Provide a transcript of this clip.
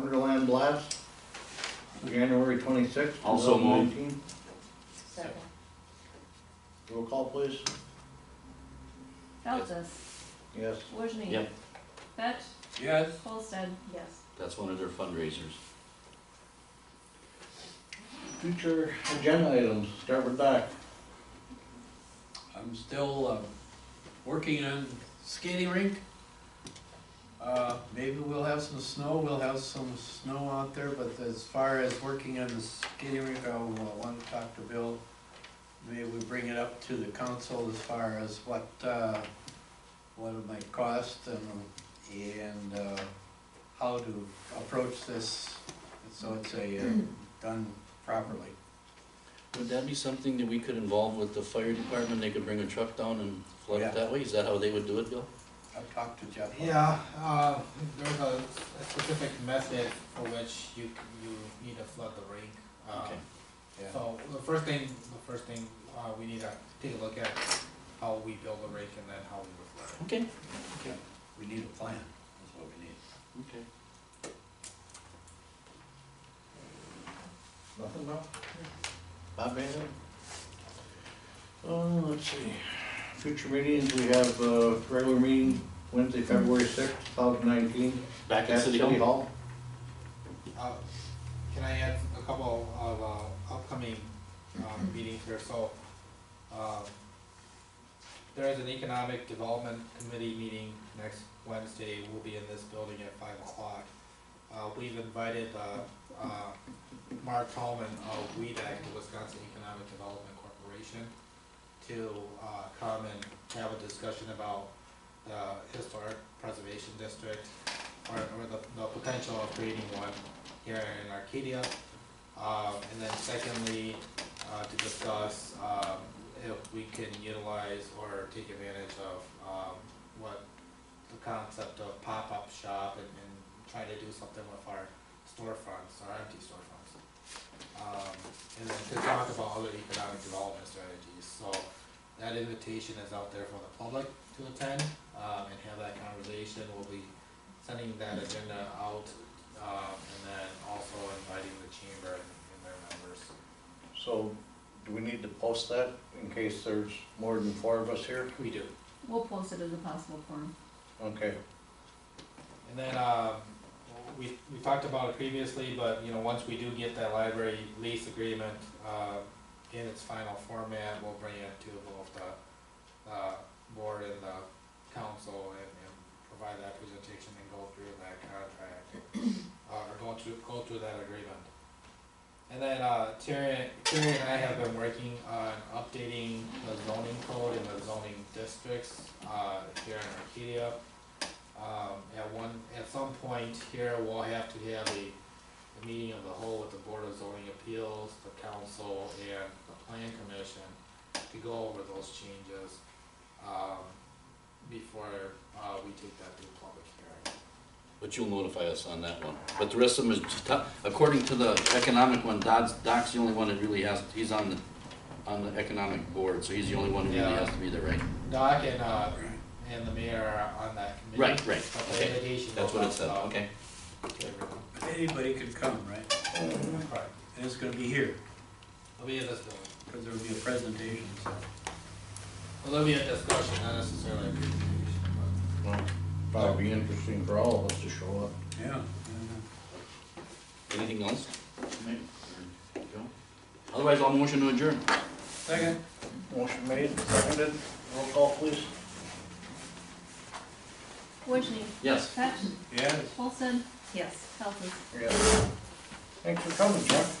Wonderland Blast, January twenty-sixth, two Also thousand moved. nineteen. Second. Roll call, please. Feltes, Yes. Wojni. Yep. Fett, Yes. Holstead, Yes. That's one of their fundraisers. Future agenda items, start with Doc. I'm still, um, working on skating rink. Uh, maybe we'll have some snow, we'll have some snow out there, but as far as working on the skating rink, I want to talk to Bill. Maybe we bring it up to the council as far as what, uh, what it might cost and, and, uh, how to approach this, so it's a, uh, done properly. Would that be something that we could involve with the fire department? They could bring a truck down and flood Yeah. it that way? Is that how they would do it, Bill? I've talked to Jeff. Yeah, uh, there's a, a specific method for which you, c- you need to flood the rink. Uh, Okay. Yeah. So the first thing, the first thing, uh, we need to take a look at how we build a rink and then how we would flood it. Okay. We need a plan, that's what we need. Okay. Nothing, Bob? Bob, anything? Uh, let's see. Future meetings, we have, uh, regular meeting Wednesday, February sixth, two thousand nineteen. Back at City Hall? Uh, Can I add a couple of uh, upcoming um, meetings here? So, um, there is an economic development committee meeting next Wednesday. We'll be in this building at five o'clock. Uh, We've invited uh, uh, Mark Tallman of WEDAC, the Wisconsin Economic Development Corporation, to uh, come and have a discussion about the historic preservation district or, or the, the potential of creating one here in Arcadia. Um, and then secondly, uh, to discuss, um, if we can utilize or take advantage of, um, what the concept of pop-up shop and, and try to do something with our storefronts, our empty storefronts. Um, and then to talk about other economic development strategies, so that invitation is out there for the public to attend, um, and have that conversation, we'll be sending that agenda out, um, and then also inviting the chamber and and their members. So, do we need to post that in case there's more than four of us here? We do. we'll post it as a possible form. Okay. And then, um, we, we talked about it previously, but, you know, once we do get that library lease agreement, uh, in its final format, we'll bring it to both the, uh, board and the council and, and provide that presentation and go through that contract, uh, or go through, go through that agreement. And then, uh, Terry, Terry and I have been working on updating the zoning code and the zoning districts, uh, here in Arcadia. Um, at one, at some point here, we'll have to have a, a meeting of the whole with the Board of Zoning Appeals, the council, and the plan commission to go over those changes, um, before, uh, we take that to a public hearing. But you'll notify us on that one. But the rest of them is, just to- according to the economic one, Doc's, Doc's the only one that really has, he's on the, on the economic board, so he's the only one who really Yeah. has to be there, right? Doc and, uh, and the mayor are on that committee. Right, right, But the okay. litigation That's what it goes said, out, okay. uh, to everyone. Anybody could come, right? Right, And it's gonna be here, it'll be in this building. because there'll be a presentation, so. Well, there'll be a discussion, not necessarily a presentation, but. Well, Probably be interesting for all of us to show up. Yeah. Anything else? Mike? Or Joe? Otherwise, I'll motion to adjourn. Second. Motion made, seconded, roll call, please. Wojni. Yes. Fett, Yes. Holstead, Yes. Feltes. Yes. Thanks for coming, Chuck.